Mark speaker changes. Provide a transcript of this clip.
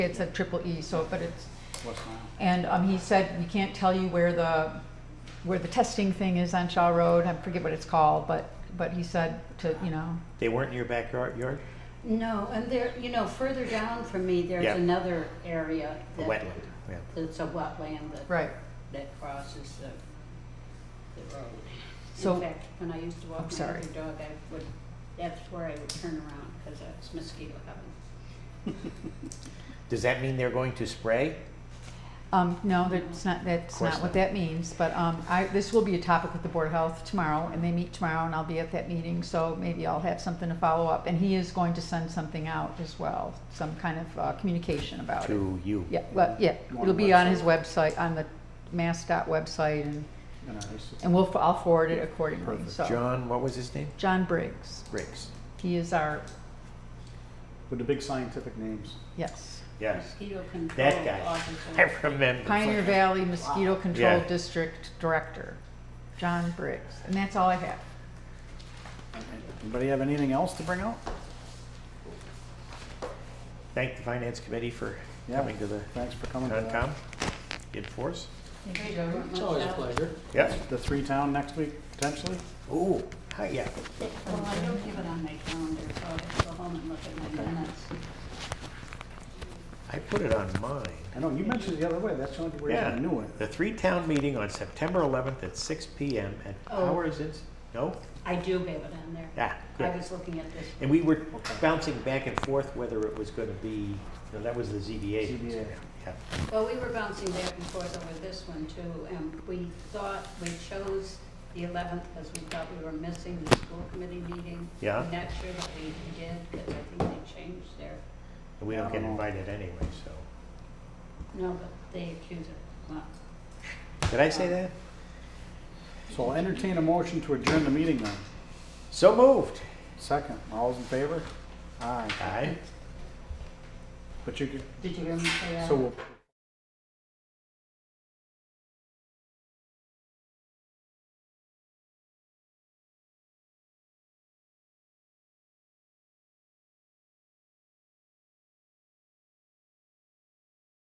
Speaker 1: It's a triple E, so, but it's,
Speaker 2: West Nile.
Speaker 1: and um, he said, we can't tell you where the, where the testing thing is on Shaw Road, I forget what it's called, but, but he said to, you know,
Speaker 3: They weren't in your backyard, yard?
Speaker 4: No, and there, you know, further down from me,
Speaker 3: Yeah.
Speaker 4: there's another area.
Speaker 3: A
Speaker 4: that-
Speaker 3: wetland, yeah.
Speaker 4: That's a wetland that.
Speaker 1: right,
Speaker 4: That crosses the, the road.
Speaker 1: So-
Speaker 4: In fact, when I used to
Speaker 1: I'm
Speaker 4: walk my
Speaker 1: sorry.
Speaker 4: other dog, I would, that's where I would turn around, cause it's mosquito heaven.
Speaker 3: Does that mean they're going to spray?
Speaker 1: Um, no, that's not, that's
Speaker 3: course
Speaker 1: not what
Speaker 3: not.
Speaker 1: that means, but, um, I, this will be a topic with the Board of Health tomorrow, and they meet tomorrow, and I'll be at that meeting, so maybe I'll have something to follow up, and he is going to send something out as well, some kind of, uh, communication about it.
Speaker 3: To you?
Speaker 1: Yeah, well, yeah,
Speaker 2: On
Speaker 1: it'll be on his
Speaker 2: website.
Speaker 1: website, on the Mass dot website, and,
Speaker 2: And I used to-
Speaker 1: and we'll, I'll forward it accordingly,
Speaker 3: Perfect.
Speaker 1: so.
Speaker 3: John, what was his name?
Speaker 1: John Briggs,
Speaker 3: Briggs.
Speaker 1: he is our,
Speaker 2: With the big scientific names.
Speaker 1: yes,
Speaker 3: Yes.
Speaker 4: Mosquito control
Speaker 3: That guy. I
Speaker 4: officer.
Speaker 3: remember.
Speaker 1: Pioneer Valley Mosquito Control
Speaker 3: Yeah.
Speaker 1: District Director, John Briggs, and that's all I have.
Speaker 2: Anybody have anything else to bring out?
Speaker 3: Thank the finance committee for
Speaker 2: Yeah.
Speaker 3: coming to the
Speaker 2: Thanks for coming. to that.
Speaker 3: Concom in force.
Speaker 1: Thank
Speaker 4: It's always a pleasure.
Speaker 3: Yep.
Speaker 2: The three town next week, potentially?
Speaker 3: Ooh, hi, yeah.
Speaker 4: Well, I don't have it on my calendar, so I'll have to go home and look at my minutes.
Speaker 3: I put it on mine.
Speaker 2: I know, you mentioned it the other way, that's the only way I
Speaker 3: Yeah.
Speaker 2: knew it.
Speaker 3: The three-town meeting on September 11th at 6 PM at
Speaker 4: Oh.
Speaker 3: Powers Ins, no?
Speaker 4: I do have it on there.
Speaker 3: Yeah,
Speaker 4: I
Speaker 3: Ah, good.
Speaker 4: was looking at this.
Speaker 3: And we were bouncing back and forth whether it was going to be, no, that was the ZBA.
Speaker 2: ZBA.
Speaker 3: Yeah.
Speaker 4: Well, we were bouncing back and forth over this one too, and we thought, we chose the eleventh because we thought we were missing the school committee meeting.
Speaker 3: Yeah.
Speaker 4: I'm Not sure that we did, because I think they changed their,
Speaker 3: And we don't get
Speaker 2: Yeah.
Speaker 3: invited anyway, so.
Speaker 4: no, but they accused it. Well,
Speaker 3: Did I say that?
Speaker 2: So I'll entertain a motion to adjourn the meeting then.
Speaker 3: So moved.
Speaker 2: Second, all's in favor? Aye.
Speaker 3: Aye.
Speaker 2: But you could,
Speaker 4: Did you hear me say that?
Speaker 2: so we'll